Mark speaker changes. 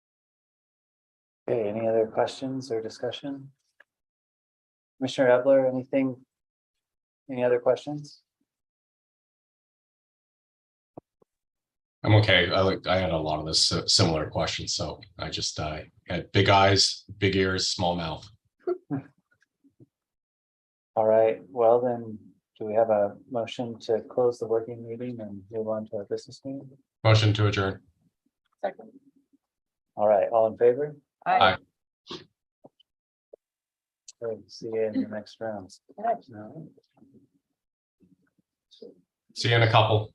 Speaker 1: Okay, any other questions or discussion? Commissioner Evler, anything? Any other questions?
Speaker 2: I'm okay. I like, I had a lot of this si- similar questions, so I just, I had big eyes, big ears, small mouth.
Speaker 1: All right, well then, do we have a motion to close the working meeting and move on to our business meeting?
Speaker 2: Motion to adjourn.
Speaker 3: Second.
Speaker 1: All right, all in favor?
Speaker 2: Aye.
Speaker 1: All right, See you in the next round.
Speaker 3: Aye.
Speaker 1: No?
Speaker 2: See you in a couple.